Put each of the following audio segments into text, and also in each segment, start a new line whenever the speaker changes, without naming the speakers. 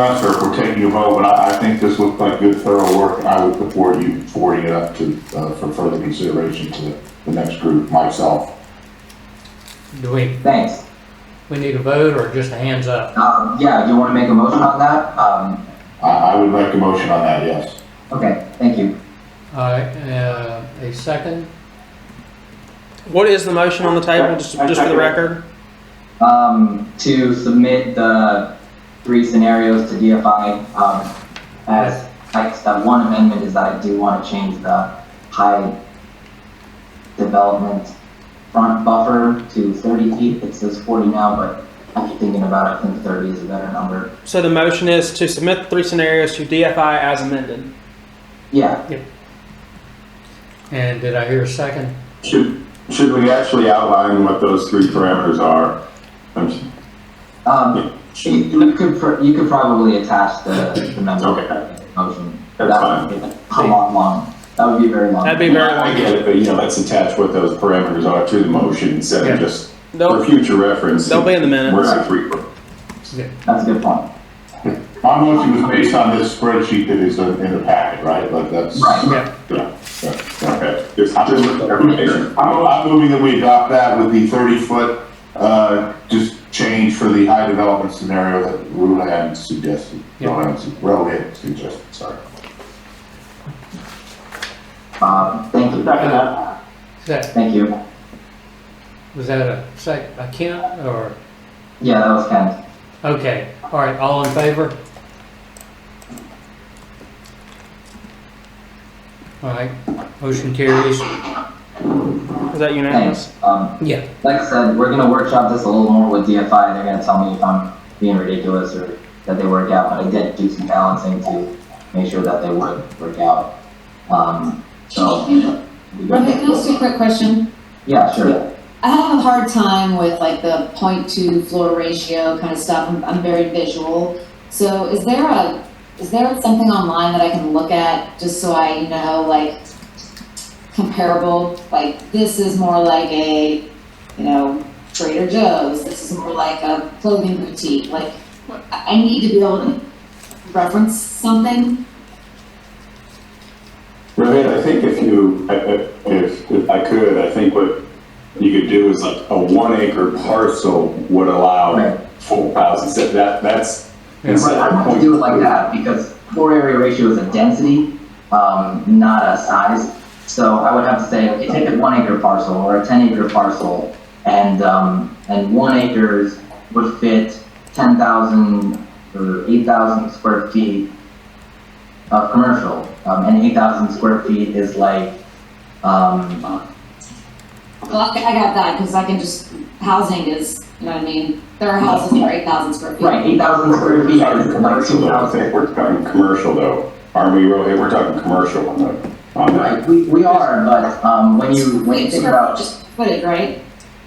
us or if we're taking a vote, but I, I think this looked like good thorough work, and I would support you forwarding it up to, uh, for further consideration to the, the next group, myself.
Do we,
Thanks.
we need a vote or just a hands up?
Um, yeah, do you want to make a motion on that? Um,
I, I would make a motion on that, yes.
okay, thank you.
All right, uh, a second?
What is the motion on the table, just,
I- I
just for the
second it.
record?
Um, to submit the three scenarios to DFI, um, as, I that one amendment is that I do want to change the high development front buffer to thirty feet. It says forty now, but after thinking about it, I think thirty is a better number.
So the motion is to submit the three scenarios to DFI as amended.
Yeah,
And did I hear a second?
Should, should we actually outline what those three parameters are? I'm s-
um, you you could, pr- you could probably attach the, the memo.
Okay.
Motion.
That's
That
fine.
would be A long, long, that would be very long.
That'd be very
I
long.
get it, but you know, let's attach what those parameters are to the motion instead
Yeah.
of just for
They'll,
future reference.
they'll be in the
Where's
minutes.
the three?
That's a good point.
My motion was based on this spreadsheet that is in in the packet, right? Like that's.
Right.
Yeah.
Okay, just, just clarification.
I'm, I'm moving that we adopt that with the thirty-foot, uh, just change for the high development scenario that Rhode Island suggested.
Yeah.
Rhode Island su- Rhode Island suggested, sorry.
Um, thank you.
Is that,
Thank you.
was that a sec, a count or?
Yeah, that was Kent.
Okay, all right, all in favor? All right, motion carries.
Is that unanimous?
Thanks. Um,
Yeah,
like I said, we're gonna workshop this a little more with DFI. They're gonna tell me if I'm being ridiculous or that they work out, but I did do some balancing to make sure that they would work out. Um, so. we go-
Rebecca, can I ask you a quick question?
Yeah, sure.
I have a hard time with like the point two floor ratio kind of stuff. I'm, I'm very visual. So is there a, is there something online that I can look at just so I, you know, like comparable? Like this is more like a, you know, Trader Joe's. This is more like a clothing boutique. Like I I need to be able to reference something.
Rohit, I think if you, I- I- if, if I could, I think what you could do is like a one acre parcel would
Right.
allow full houses. That- That, that's.
Right, I want to do it like that because floor area ratio is a density, um, not a size. So I would have to say, okay, take a one acre parcel or a ten acre parcel and, um, and one acres would fit ten thousand or eight thousand square feet of commercial. Um, and eight thousand square feet is like, um,
Well, I I got that because I can just, housing is, you know what I mean? There are houses that are eight thousand square feet.
right, eight thousand square feet
Talking
is like
commercial
two
though, I
thousand.
think we're talking commercial though, aren't we, Rohit? We're talking commercial on the, on that.
Right, we, we are, but, um, when you, when you
It's
think
for-
about
Just footage, right?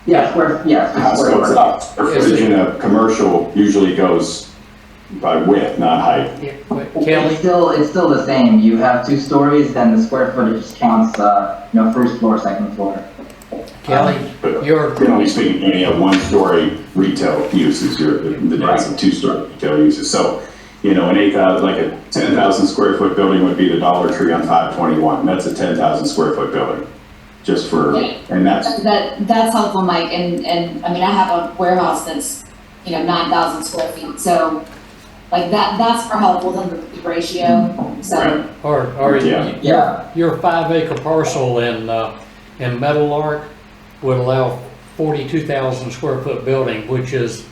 Yeah, square, yeah,
House
square
goes
foot.
up, the footage in a commercial usually goes by width, not height.
yeah, but
It's
Kelly,
still, it's still the same, you have two stories, then the square footage counts, uh, you know, first floor, second floor.
Kelly,
But
your,
generally speaking, you only have one-story retail uses, your, the days of two-story retail uses. So, you know, an eight thousand, like a ten thousand square foot building would be the Dollar Tree on five twenty-one. That's a ten thousand square foot building, just for, and that's
That, that's helpful, Mike, and, and, I mean, I have a warehouse that's, you know, nine thousand square feet, so like that, that's for helpful than the the ratio, so.
or, or
Yeah.
Yeah,
your five acre parcel in, uh, in Metal Ark would allow forty-two thousand square foot building, which is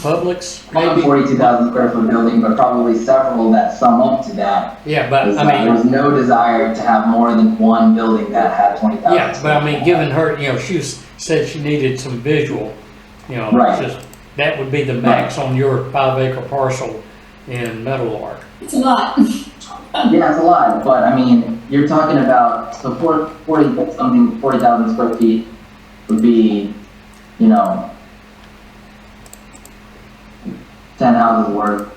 Publix,
probably
maybe?
forty-two thousand square foot building, but probably several that sum up to that.
Yeah, but
There's
Uh, I
not-
mean,
there's no desire to have more than one building that had twenty thousand.
Yeah, but I mean, given her, you know, she was, said she needed some visual, you know,
Right.
just, that would be the max on your five acre parcel in Metal Ark.
It's a lot.
Yeah, it's a lot, but I mean, you're talking about, so four, forty, something, forty thousand square feet would be, you know, ten houses worth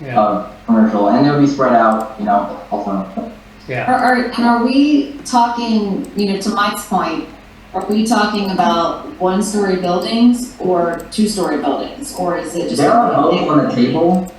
Yeah,
of uh, commercial, and it would be spread out, you know, also.
yeah.
Are, are, and are we talking, you know, to Mike's point, are we talking about one-story buildings or two-story buildings, or is it just?
There are both on the table,